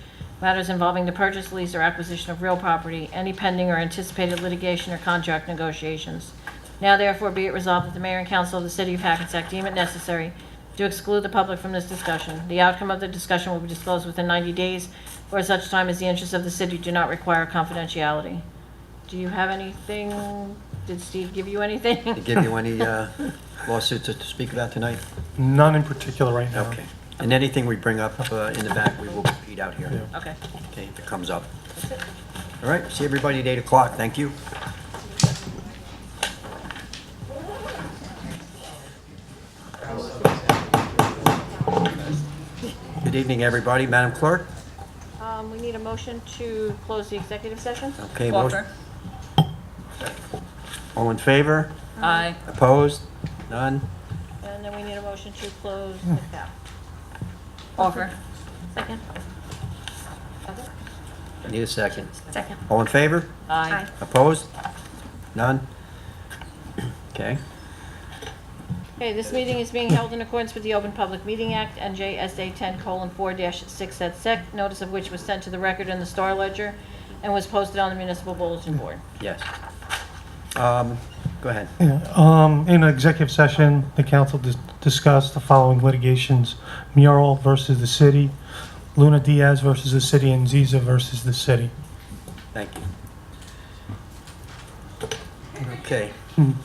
Matters involving the purchase, lease, or acquisition of real property, any pending or anticipated litigation or contract negotiations. Now therefore be it resolved that the mayor and council of the city of Hackensack deem it necessary to exclude the public from this discussion. The outcome of the discussion will be disclosed within 90 days or such time as the interests of the city do not require confidentiality. Do you have anything? Did Steve give you Did anything? give you any uh, lawsuits to speak about tonight? None in particular right now. Okay. And anything we bring up uh, in the back, we will repeat out here, Okay. okay, if it comes up. All right, see everybody at 8 o'clock, thank you. Good evening, everybody. Madam Clerk? Um, We need a motion to close the executive session? Okay. mo- Walker? All in favor? Aye. Opposed? None? And then we need a motion to close the cap. Walker? Second? Need a second. Second. All in favor? Aye. Opposed? None? Okay. Okay, this meeting is being held in accordance with the Open Public Meeting Act, NJSA 10:4-6 et sec, notice of which was sent to the record in the Star Ledger and was posted on the municipal bulletin board. Yes. Um, Go ahead. Um, in executive session, the council dis- discussed the following litigations. Mural versus the city, Luna Diaz versus the city, and Ziza versus the city. Thank you. Okay.